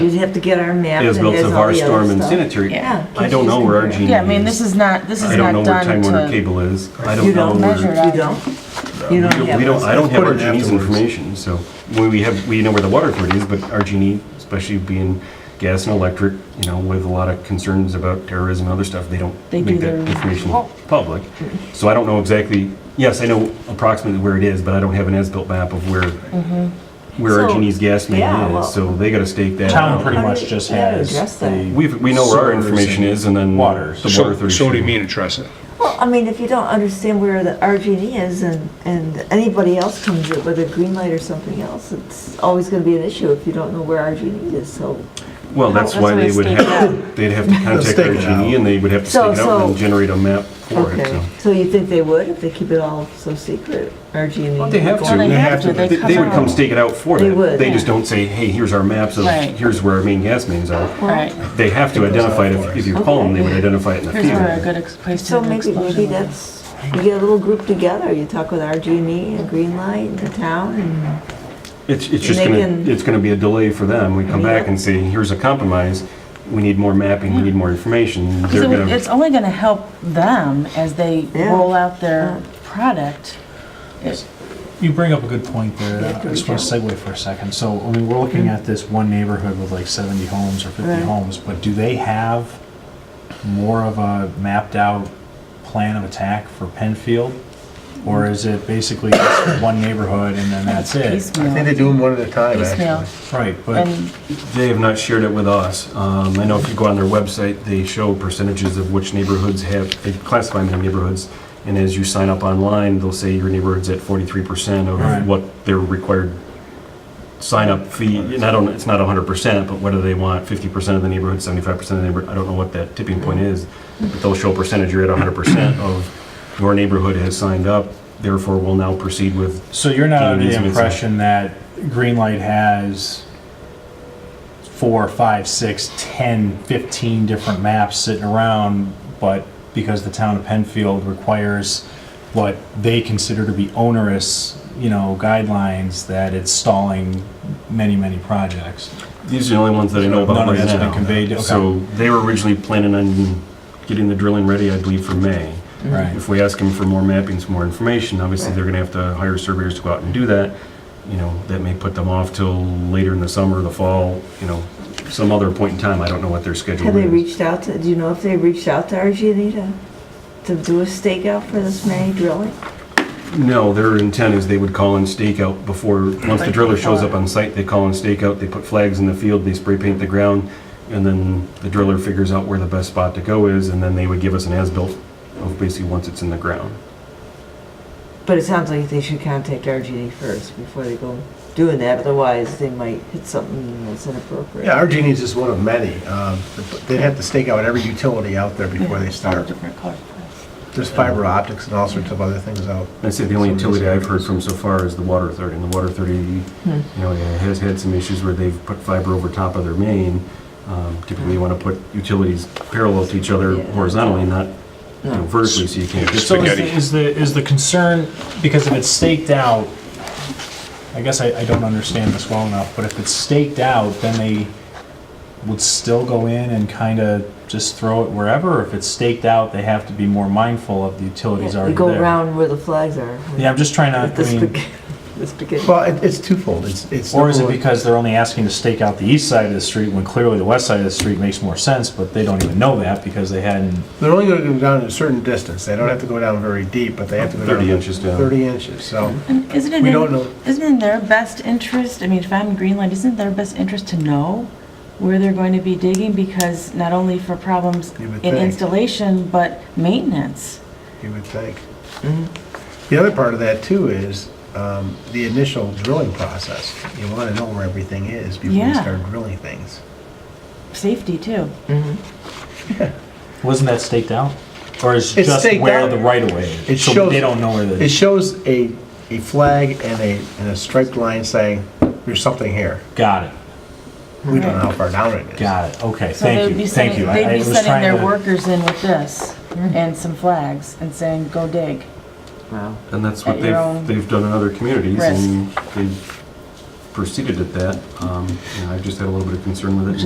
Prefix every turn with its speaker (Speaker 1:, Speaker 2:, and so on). Speaker 1: You'd have to get our map.
Speaker 2: As
Speaker 1: and
Speaker 2: built
Speaker 1: has
Speaker 2: of
Speaker 1: all
Speaker 2: our
Speaker 1: the other
Speaker 2: storm and
Speaker 1: stuff.
Speaker 2: sanitary.
Speaker 1: Yeah,
Speaker 2: I don't know where our
Speaker 1: because
Speaker 2: genie is.
Speaker 3: Yeah, I mean, this is not, this is
Speaker 2: I don't know
Speaker 3: not
Speaker 2: where Time
Speaker 3: done
Speaker 2: Warner
Speaker 3: to,
Speaker 2: Cable is. I
Speaker 1: You
Speaker 2: don't
Speaker 1: don't
Speaker 2: know where.
Speaker 3: measure it
Speaker 1: You don't? You don't have.
Speaker 2: We don't,
Speaker 1: those.
Speaker 2: I don't have
Speaker 4: Put
Speaker 2: our
Speaker 4: it
Speaker 2: genie's
Speaker 4: afterwards.
Speaker 2: information, so we we have, we know where the Waterford is, but our genie, especially being gas and electric, you know, with a lot of concerns about terrorism and other stuff, they don't
Speaker 3: They
Speaker 2: make
Speaker 3: do
Speaker 2: that
Speaker 3: their- Oh.
Speaker 2: information public. So I don't know exactly, yes, I know approximately where it is, but I don't have an as-built map of where,
Speaker 3: Mm-hmm.
Speaker 2: where our
Speaker 1: So-
Speaker 2: genie's gas
Speaker 1: yeah,
Speaker 2: main
Speaker 1: well-
Speaker 2: is, so they gotta stake that
Speaker 4: Town
Speaker 2: out.
Speaker 4: pretty
Speaker 1: How do
Speaker 4: much
Speaker 1: we-
Speaker 4: just
Speaker 1: how do we
Speaker 4: has.
Speaker 1: address that?
Speaker 4: the
Speaker 2: We, we know where our
Speaker 4: sewers
Speaker 2: information is and then.
Speaker 4: water.
Speaker 2: The
Speaker 5: So,
Speaker 2: water authority.
Speaker 5: so what do you mean address it?
Speaker 1: Well, I mean, if you don't understand where the RG&E is and, and anybody else comes in with a green light or something else, it's always gonna be an issue if you don't know where RG&E is, so.
Speaker 2: Well, that's why they would
Speaker 3: stake it
Speaker 2: have, they'd have to contact
Speaker 4: stake
Speaker 2: our
Speaker 4: it
Speaker 2: genie
Speaker 4: out.
Speaker 2: and they would have to
Speaker 1: So-
Speaker 2: stake it out and then
Speaker 1: so-
Speaker 2: generate a map for it, so.
Speaker 1: Okay, so you think they would if they keep it all so secret, RG&E?
Speaker 2: Well, they have to.
Speaker 3: Well, they have to. They
Speaker 2: They- They would
Speaker 3: cover
Speaker 2: come
Speaker 3: up.
Speaker 2: stake it out for
Speaker 1: They
Speaker 2: that.
Speaker 1: would,
Speaker 2: They
Speaker 1: yeah.
Speaker 2: just don't say, hey, here's our maps of,
Speaker 3: Right.
Speaker 2: here's where our main gas mains are.
Speaker 3: right?
Speaker 2: They have to identify it. If- If you call them, they would identify it in the
Speaker 3: Here's where a
Speaker 2: field.
Speaker 3: good ex- place to
Speaker 1: So
Speaker 3: do an
Speaker 1: maybe, maybe
Speaker 3: explosion. was.
Speaker 1: that's, you get a little group together, you talk with RG&E and Green Light and the town and,
Speaker 2: It's, it's just
Speaker 1: They
Speaker 2: gonna,
Speaker 1: can-
Speaker 2: it's gonna be a delay for them. We come back
Speaker 1: Yeah.
Speaker 2: and say, here's a compromise. We need more mapping, we need more information. They're
Speaker 3: So
Speaker 2: gonna,
Speaker 3: It's only gonna help them as they
Speaker 1: Yeah.
Speaker 3: roll out their product. It-
Speaker 4: You bring up a good point there.
Speaker 1: You have to
Speaker 4: I just
Speaker 1: reach
Speaker 4: want to segue for a second. So, I mean, we're looking at this one neighborhood with like 70 homes or 50
Speaker 1: Right.
Speaker 4: homes, but do they have more of a mapped out plan of attack for Penfield? Or is it basically just one neighborhood and then that's it?
Speaker 6: I think they
Speaker 3: Piecemeal,
Speaker 6: do them one at a time,
Speaker 3: piecemeal.
Speaker 6: actually.
Speaker 4: Right, but
Speaker 3: And
Speaker 2: they have not shared it with us. Um, I know if you go on their website, they show percentages of which neighborhoods have, they classify them in neighborhoods. And as you sign up online, they'll say your neighborhood's at forty-three percent
Speaker 4: Right.
Speaker 2: of what their required sign-up fee, and I don't, it's not hundred percent, but what do they want? Fifty percent of the neighborhood, seventy-five percent of the neighborhood, I don't know what that tipping point is. But they'll show a percentage, you're at hundred percent of your neighborhood has signed up, therefore we will now proceed with
Speaker 4: So you're not under
Speaker 2: Gaming
Speaker 4: the
Speaker 2: is
Speaker 4: impression that Greenlight has four, five, six, 10, 15 different maps sitting around, but because the town of Penfield requires what they consider to be onerous, you know, guidelines, that it's stalling many, many projects.
Speaker 2: These are the only ones that I know about
Speaker 4: None of
Speaker 2: right
Speaker 4: that's been
Speaker 2: now.
Speaker 4: conveyed, okay.
Speaker 2: So they were originally planning on getting the drilling ready, I believe, for May.
Speaker 4: Right.
Speaker 2: If we ask them for more mapping, some more information, obviously they're gonna have to hire surveyors to go out and do that. You know, that may put them off till later in the summer, the fall, you know, some other point in time. I don't know what their schedule
Speaker 1: have they
Speaker 2: is.
Speaker 1: reached out to, do you know if they reached out to RG&E to, to do a stakeout for this many drilling?
Speaker 2: No, their intent is they would call in stakeout before, once the driller shows up on site, they call in stakeout, they put flags in the field, they spray paint the ground, and then the driller figures out where the best spot to go is, and then they would give us an as-built of basically once it's in the ground.
Speaker 1: But it sounds like they should contact RG&E first before they go doing that, otherwise they might hit something that's inappropriate.
Speaker 6: Yeah, our genie's just one of many. Um, They have to stake out every utility out there before they start.
Speaker 3: different color.
Speaker 6: There's fiber optics and all sorts of other things out.
Speaker 2: I said the only utility I've heard from so far is the water authority, and the water authority, you
Speaker 1: Hmm.
Speaker 2: know, has had some issues where they've put fiber over top of their main. Um, Typically, you want to put utilities parallel to each other
Speaker 1: Yeah.
Speaker 2: horizontally, not you know, vertically, so you can't get
Speaker 4: So is
Speaker 5: Spaghetti.
Speaker 4: the, is the, is the concern, because if it's staked out, I guess I, I don't understand this well enough, but if it's staked out, then they would still go in and kind of just throw it wherever? Or if it's staked out, they have to be more mindful of the utilities
Speaker 1: They
Speaker 4: already
Speaker 1: go
Speaker 4: there?
Speaker 1: around where the flags are.
Speaker 4: Yeah, I'm just trying
Speaker 1: With
Speaker 4: to,
Speaker 1: the
Speaker 4: I mean,
Speaker 1: spaghetti, the spaghetti.
Speaker 6: Well, it- it's twofold. It's, it's.
Speaker 4: or is it
Speaker 6: number one-
Speaker 4: because they're only asking to stake out the east side of the street when clearly the west side of the street makes more sense, but they don't even know that because they hadn't,
Speaker 6: They're only going to go down a certain distance. They don't have to go down very deep, but they have to go down.
Speaker 2: 30 inches down.
Speaker 6: 30 inches, so.
Speaker 3: And isn't it,
Speaker 6: We don't know.
Speaker 3: in- isn't it in their best interest, I mean, if I'm Greenlight, isn't it their best interest to know where they're going to be digging? Because not only for problems
Speaker 6: You would
Speaker 3: in
Speaker 6: think.
Speaker 3: installation, but maintenance.
Speaker 6: you would think.
Speaker 4: Mm-hmm.
Speaker 6: The other part of that too is um, the initial drilling process. You want to know where everything is before you
Speaker 3: Yeah.
Speaker 6: start drilling things.
Speaker 3: Safety, too.
Speaker 4: wasn't that staked out? Or is
Speaker 6: It's
Speaker 4: just
Speaker 6: staked
Speaker 4: where
Speaker 6: out.
Speaker 4: the right of way
Speaker 6: It
Speaker 4: is? So
Speaker 6: shows-
Speaker 4: they don't know where the.
Speaker 6: It shows a, a flag and a, and a striped line saying, there's something here.
Speaker 4: Got it.
Speaker 6: We don't know how far down it is.
Speaker 4: Got it, okay,
Speaker 3: So they'd
Speaker 4: thank
Speaker 3: be
Speaker 4: you, thank
Speaker 3: sending,
Speaker 4: you. I-
Speaker 3: they'd
Speaker 4: I
Speaker 3: be
Speaker 4: was
Speaker 3: sending
Speaker 4: trying
Speaker 3: their
Speaker 4: to-
Speaker 3: workers in with this and some flags and saying, go dig.
Speaker 1: Wow.
Speaker 2: And that's what
Speaker 3: At your
Speaker 2: they've,
Speaker 3: own
Speaker 2: they've done in other communities,
Speaker 3: risk.
Speaker 2: and they've proceeded at that. Um, you know, I've just had a little bit of concern with it.